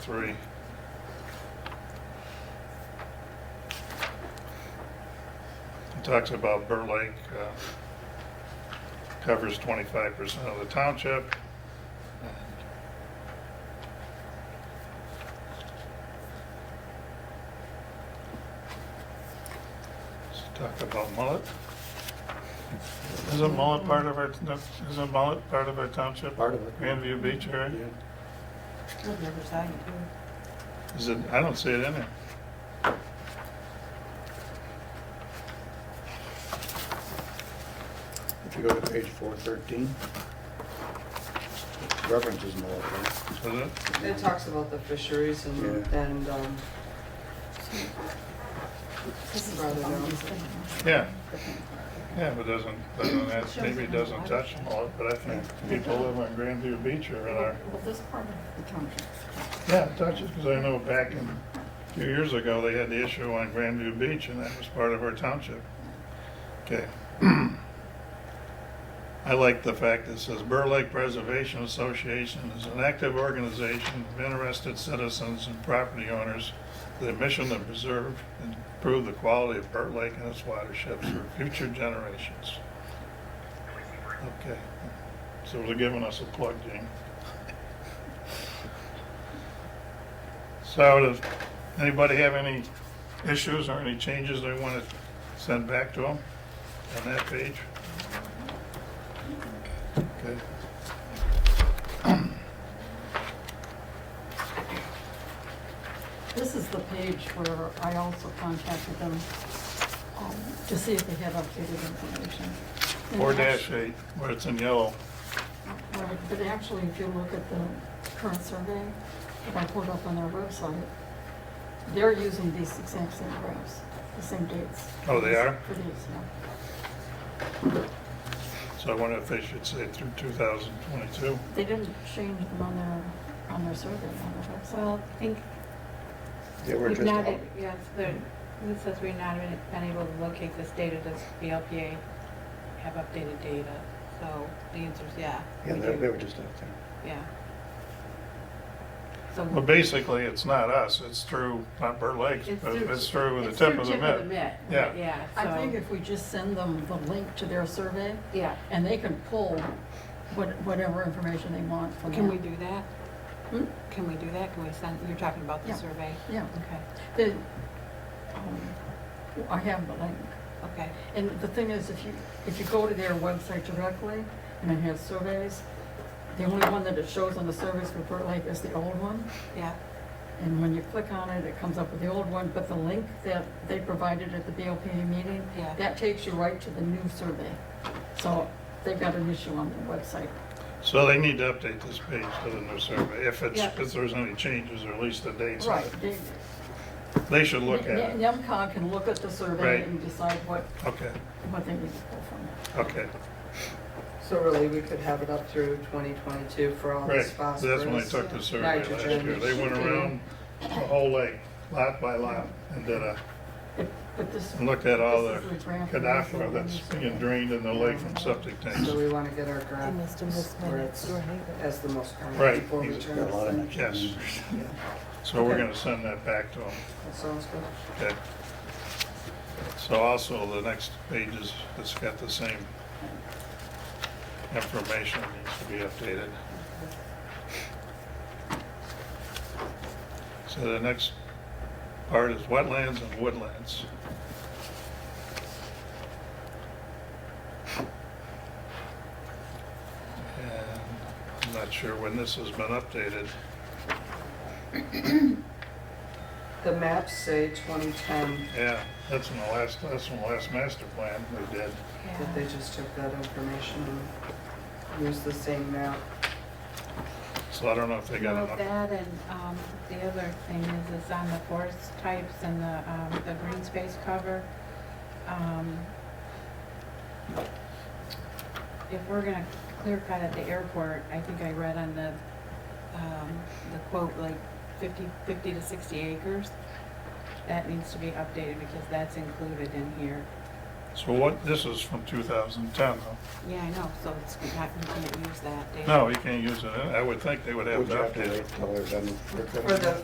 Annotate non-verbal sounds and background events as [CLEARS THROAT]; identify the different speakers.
Speaker 1: Three. It talks about Burt Lake, uh, covers twenty-five percent of the township. Let's talk about mullet. Isn't mullet part of our, isn't mullet part of our township?
Speaker 2: Part of it.
Speaker 1: Grandview Beach area?
Speaker 2: Yeah.
Speaker 3: I've never saw you do
Speaker 1: Is it, I don't see it in there.
Speaker 2: If you go to page four thirteen, references Mullet Lake.
Speaker 1: Is it?
Speaker 4: It talks about the fisheries and,
Speaker 2: Yeah.
Speaker 4: and, um, rather than,
Speaker 1: Yeah. Yeah, but doesn't, doesn't, ask- maybe it doesn't touch them all, but I think people live on Grandview Beach or in our,
Speaker 5: Well, this part of the township.
Speaker 1: yeah, it touches, because I know back in, a few years ago, they had the issue on Grandview Beach, and that was part of our township. Okay. [CLEARS THROAT] I like the fact that it says Burr Lake Preservation Association is an active organization of interested citizens and property owners with a mission to preserve and improve the quality of Burr Lake and its watersheds for future generations. Okay, so they're giving us a plug, Jane. So does anybody have any issues or any changes they want to send back to them on that page? Okay.
Speaker 5: This is the page where I also contacted them um, to see if they had updated information. And
Speaker 1: Four
Speaker 5: actu-
Speaker 1: dash eight, where it's in yellow.
Speaker 5: Right, But actually, if you look at the current survey that I pulled up on their website, they're using these exact same graphs, the same dates.
Speaker 1: Oh, they are?
Speaker 5: For these, yeah.
Speaker 1: So I wonder if they should say through 2022.
Speaker 5: They didn't change them on their, on their survey, on their website.
Speaker 6: Well, I think
Speaker 2: They were
Speaker 6: we've
Speaker 2: just,
Speaker 6: not,
Speaker 2: up-
Speaker 6: yes, there, it says we've not been- been able to locate this data, does VLPA have updated data? So the answer is yeah.
Speaker 2: yeah,
Speaker 6: we
Speaker 2: they they
Speaker 6: do.
Speaker 2: were just out there.
Speaker 6: Yeah. So
Speaker 1: Well, basically, it's not us, it's through, not Burt Lake,
Speaker 6: It's
Speaker 1: but
Speaker 6: through-
Speaker 1: it's through the
Speaker 6: it's
Speaker 1: tip
Speaker 6: through
Speaker 1: of the mitt. Yeah.
Speaker 6: right, Yeah, so.
Speaker 5: I think if we just send them the link to their survey,
Speaker 6: Yeah.
Speaker 5: And they can pull what- whatever information they want from that.
Speaker 6: Can we do that?
Speaker 5: Hmm?
Speaker 6: Can we do that? Can we send, you're talking about the
Speaker 5: Yeah.
Speaker 6: survey?
Speaker 5: Yeah,
Speaker 6: Okay,
Speaker 5: the, um, I have the link.
Speaker 6: okay.
Speaker 5: And the thing is, if you, if you go to their website directly and it has surveys, the only one that it shows on the surveys for Burt Lake is the old one.
Speaker 6: Yeah,
Speaker 5: And when you click on it, it comes up with the old one, but the link that they provided at the BLPA meeting,
Speaker 6: Yeah.
Speaker 5: that takes you right to the new survey. So they've got an issue on their website.
Speaker 1: So they need to update this page to the new survey, if it's,
Speaker 5: Yeah.
Speaker 1: if there's any changes or at least the dates. on
Speaker 5: Right,
Speaker 1: it.
Speaker 5: they-
Speaker 1: They should look at it.
Speaker 5: NEMCOG can look at the survey
Speaker 1: Right.
Speaker 5: and decide what,
Speaker 1: Okay,
Speaker 5: what they need to pull from it.
Speaker 1: okay,
Speaker 4: so really, we could have it up through twenty twenty-two for all
Speaker 1: right.
Speaker 4: this
Speaker 1: That's
Speaker 4: phosphorus.
Speaker 1: when they took the survey last
Speaker 4: nitrogen,
Speaker 1: year. They went
Speaker 4: you know.
Speaker 1: around the whole lake, lot by lot, and did a,
Speaker 5: But- But this.
Speaker 1: and looked at all the
Speaker 5: this is graph that I showed
Speaker 1: cadaver
Speaker 5: on
Speaker 1: that's
Speaker 5: the
Speaker 1: being
Speaker 5: survey.
Speaker 1: drained in the lake from septic tanks.
Speaker 4: So we wanna get our
Speaker 3: it. You
Speaker 4: grant
Speaker 3: must have missed
Speaker 4: where
Speaker 3: my
Speaker 4: it's
Speaker 3: door neighbor.
Speaker 4: as the most common
Speaker 1: Right.
Speaker 4: before we
Speaker 1: He's
Speaker 4: turn
Speaker 2: Got a lot of
Speaker 4: this
Speaker 2: natural
Speaker 1: Yes.
Speaker 2: numbers.
Speaker 4: thing. Yeah,
Speaker 1: So we're
Speaker 4: Okay.
Speaker 1: gonna send that back to them,
Speaker 4: that sounds good.
Speaker 1: okay? So also, the next page is, it's got the same information that needs to be updated. So the next part is wetlands and woodlands. And I'm not sure when this has been updated.
Speaker 4: The maps say twenty ten,
Speaker 1: Yeah, that's in the last, that's in the last master plan they did.
Speaker 4: that they just took that information and used the same map.
Speaker 1: So I don't know if they got
Speaker 6: Well,
Speaker 1: enough.
Speaker 6: that and, um, the other thing is, is on the forest types and the, um, the green space cover. um, If we're gonna clear cut at the airport, I think I read on the, um, the quote, like fifty, fifty to sixty acres. That needs to be updated because that's included in here.
Speaker 1: So what, this is from 2010, though.
Speaker 6: Yeah, I know, so it's, we can't- we can't use that data.
Speaker 1: No, you can't use it. I would think they would have
Speaker 2: Would
Speaker 1: to
Speaker 2: you have to
Speaker 1: update it.
Speaker 2: wait till they're done?
Speaker 4: For the